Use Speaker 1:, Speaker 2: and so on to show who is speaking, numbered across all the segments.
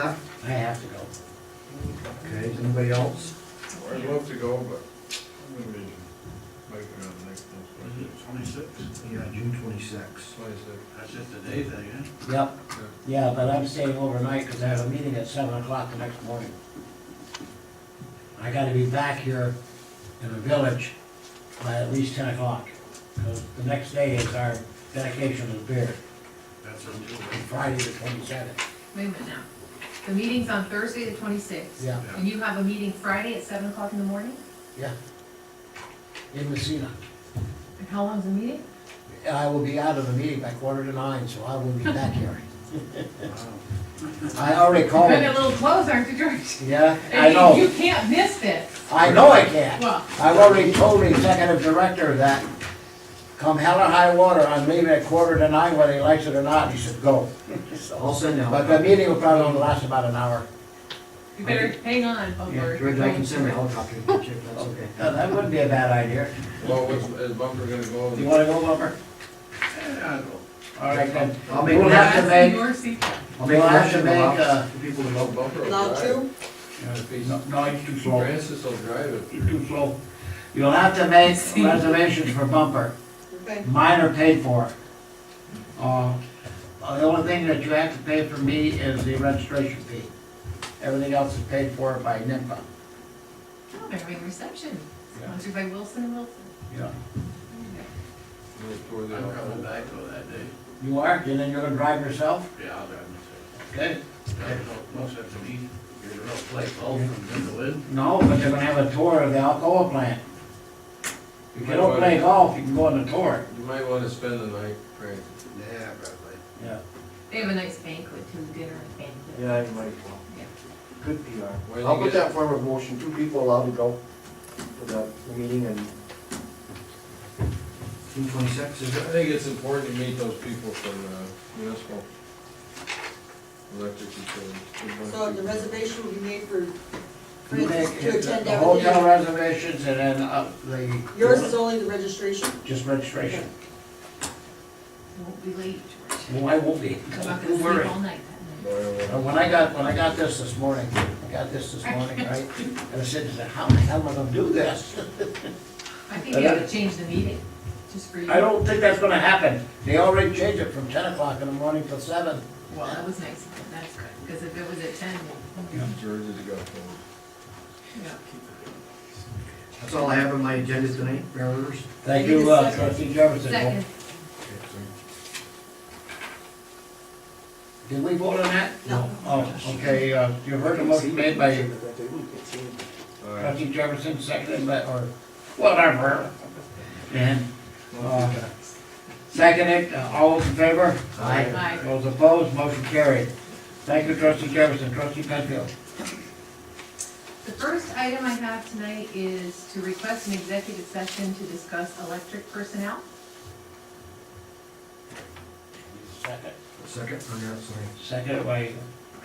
Speaker 1: up?
Speaker 2: I have to go.
Speaker 1: Okay, is anybody else?
Speaker 3: I'd love to go, but I'm gonna be making it on next month.
Speaker 4: Twenty-six,
Speaker 1: Yeah, June twenty-sixth.
Speaker 3: Twenty-six,
Speaker 4: that's just a day thing, eh?
Speaker 2: Yep, yeah, but I'm staying overnight because I have a meeting at seven o'clock the next morning. I gotta be back here in the village by at least ten o'clock. Because the next day is our dedication of beer,
Speaker 4: That's a deal,
Speaker 2: on Friday the twenty-seventh.
Speaker 5: Wait a minute now. The meeting's on Thursday, the twenty-sixth.
Speaker 2: Yeah,
Speaker 4: Yeah.
Speaker 5: And you have a meeting Friday at seven o'clock in the morning?
Speaker 2: yeah. In Messina.
Speaker 5: And how long's the meeting?
Speaker 2: I will be out of the meeting by quarter to nine, so I will be back here.
Speaker 4: right?
Speaker 2: I already
Speaker 5: You're
Speaker 2: called.
Speaker 5: getting a little close, aren't you, George?
Speaker 2: Yeah, Oh. I
Speaker 5: mean, You
Speaker 2: know.
Speaker 5: can't miss this.
Speaker 2: I know I can't.
Speaker 5: Well,
Speaker 2: I've already told the executive director that come hell or high water, I'm leaving at quarter to nine, whether he likes it or not, he should go.
Speaker 1: I'll send out.
Speaker 2: But the meeting will probably only last about an hour.
Speaker 5: you better hang on, oh, Bumper.
Speaker 1: Yeah, George, I can send my helicopter to check, that's okay.
Speaker 2: Uh, That wouldn't be a bad idea.
Speaker 3: well, is, is Bumper gonna go?
Speaker 2: You wanna go, Bumper?
Speaker 4: Yeah, I go.
Speaker 2: All right, then.
Speaker 1: I'll make a
Speaker 2: We'll have to
Speaker 5: That's
Speaker 2: make,
Speaker 5: your Oh, secret.
Speaker 1: I'll make a
Speaker 2: We'll have
Speaker 1: motion to
Speaker 2: to make, uh,
Speaker 1: allow for people to
Speaker 3: No,
Speaker 1: vote.
Speaker 3: Oh, Bumper will
Speaker 6: Not
Speaker 3: drive.
Speaker 6: true?
Speaker 3: If he's,
Speaker 2: no, it's too slow,
Speaker 3: Francis will drive it.
Speaker 2: It's too slow. You'll have to make reservations for Bumper.
Speaker 6: Okay.
Speaker 2: Mine are paid for. Uh, uh, The only thing that you have to pay for me is the registration fee. Everything else is paid for by NIMPA.
Speaker 5: Oh, they're having a reception.
Speaker 2: Yeah.
Speaker 5: Sponsored by Wilson and Wilson.
Speaker 2: Yeah.
Speaker 3: and we'll tour the
Speaker 4: I'm coming
Speaker 3: outfit.
Speaker 4: back though that day,
Speaker 2: You are, and then you're gonna drive yourself?
Speaker 4: yeah, I'll drive myself.
Speaker 2: Okay.
Speaker 4: There's no, no sense in me, there's no place all from them to live.
Speaker 2: No, but they're gonna have a tour of the Alcoa plant. If you
Speaker 3: might
Speaker 2: don't
Speaker 3: wanna-
Speaker 2: play golf, you can go on the tour.
Speaker 3: You might wanna spend the night, Frank.
Speaker 4: Yeah, probably.
Speaker 2: Yeah.
Speaker 5: They have a nice banquet too, dinner and banquet.
Speaker 1: Yeah, you might as well.
Speaker 5: Yeah.
Speaker 1: Good PR.
Speaker 3: When
Speaker 7: I'll
Speaker 3: you
Speaker 7: put
Speaker 3: get-
Speaker 7: that form of motion, two people allowed to go to the meeting and
Speaker 1: June twenty-sixth, is
Speaker 3: I
Speaker 1: it?
Speaker 3: think it's important to meet those people from uh, municipal electric utilities. Good bunch of
Speaker 6: So the
Speaker 3: people.
Speaker 6: reservation will be made for
Speaker 2: You
Speaker 6: friends
Speaker 2: make
Speaker 6: to
Speaker 2: it-
Speaker 6: attend
Speaker 2: the hotel
Speaker 6: everything.
Speaker 2: reservations and then uh, the.
Speaker 6: Yours is only the registration?
Speaker 2: Just registration.
Speaker 5: You Won't be late, George.
Speaker 2: Well, I won't be.
Speaker 5: I'm not gonna
Speaker 2: Don't worry.
Speaker 5: sleep all night that night.
Speaker 3: Boy, oh,
Speaker 2: Uh,
Speaker 3: well.
Speaker 2: When I got, when I got this this morning, I got this this morning, right? And I said, how the hell am I gonna do this?
Speaker 5: I think you ought to change the meeting, just for you.
Speaker 2: I don't think that's gonna happen. They already changed it from ten o'clock in the morning till seven.
Speaker 5: Well, that was nice, of them. that's good, because if it was at ten,
Speaker 3: George has got cold.
Speaker 5: yeah.
Speaker 1: That's all I have on my agenda tonight, Mayor Rivers.
Speaker 2: Thank
Speaker 6: Need a
Speaker 2: you, uh,
Speaker 6: second.
Speaker 2: trustee Jefferson.
Speaker 5: Second.
Speaker 2: Did we vote on that?
Speaker 6: No.
Speaker 2: Oh, okay, uh, you heard the motion made by
Speaker 3: All right.
Speaker 2: trustee Jefferson, seconded by, or whatever. And, uh, seconded, uh, all those in favor?
Speaker 5: Aye.
Speaker 2: Those opposed, motion carried. Thank you, trustee Jefferson, trustee Penfield.
Speaker 5: The first item I have tonight is to request an executive session to discuss electric personnel.
Speaker 2: Second.
Speaker 1: Second, I'm not sorry.
Speaker 2: Seconded by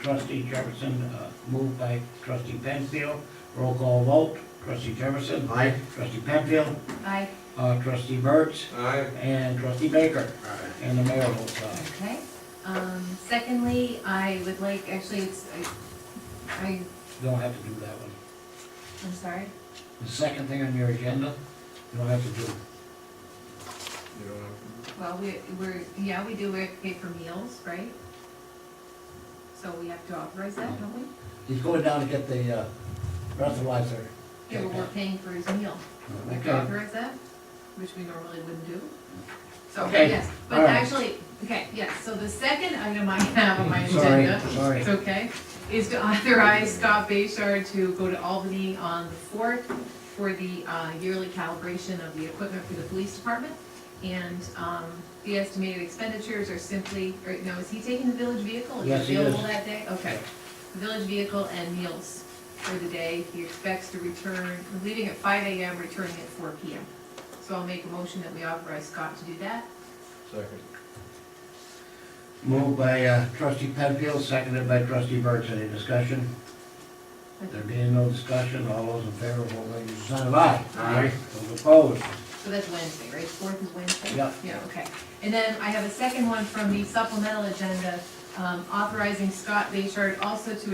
Speaker 2: trustee Jefferson, uh, moved by trustee Penfield. Roll call vote, trustee Jefferson,
Speaker 1: Aye.
Speaker 2: trustee Penfield,
Speaker 5: Aye.
Speaker 2: uh, trustee Burts,
Speaker 3: Aye.
Speaker 2: and trustee Baker. And the mayor votes aye.
Speaker 5: Okay. Um, secondly, I would like, actually, it's, I, I,
Speaker 2: Don't have to do that one.
Speaker 5: I'm sorry.
Speaker 2: The second thing on your agenda, you don't have to do.
Speaker 3: You don't have
Speaker 5: Well, we, we're, yeah, we do, we have to pay for meals, right? So we have to authorize that, don't we?
Speaker 2: He's going down to get the uh, breathalyzer.
Speaker 5: Yeah, but we're paying for his meal. We have to
Speaker 2: Okay.
Speaker 5: authorize that, which we normally wouldn't do. So,
Speaker 2: Okay.
Speaker 5: yes, but
Speaker 2: All right.
Speaker 5: actually, okay, yes, so the second item I have on my
Speaker 2: Sorry,
Speaker 5: agenda.
Speaker 2: sorry.
Speaker 5: It's okay, is to authorize Scott Bayshard to go to Albany on the fourth for the uh, yearly calibration of the equipment for the police department. And um, the estimated expenditures are simply, or no, is he taking the village vehicle?
Speaker 2: Yes, he
Speaker 5: available
Speaker 2: is.
Speaker 5: that day? Okay. The Village vehicle and meals for the day. He expects to return, leaving at five AM, returning at four PM. So I'll make a motion that we authorize Scott to do that.
Speaker 3: to. Second.
Speaker 2: Moved by uh, trustee Penfield, seconded by trustee Burks. Any discussion? There being no discussion, all those in favor, vote by your sign of aye.
Speaker 3: Aye.
Speaker 2: Those opposed?
Speaker 5: So that's Wednesday, right? Fourth is Wednesday?
Speaker 2: Yeah.
Speaker 5: Yeah, okay. And then I have a second one from the supplemental agenda um, authorizing Scott Bayshard also to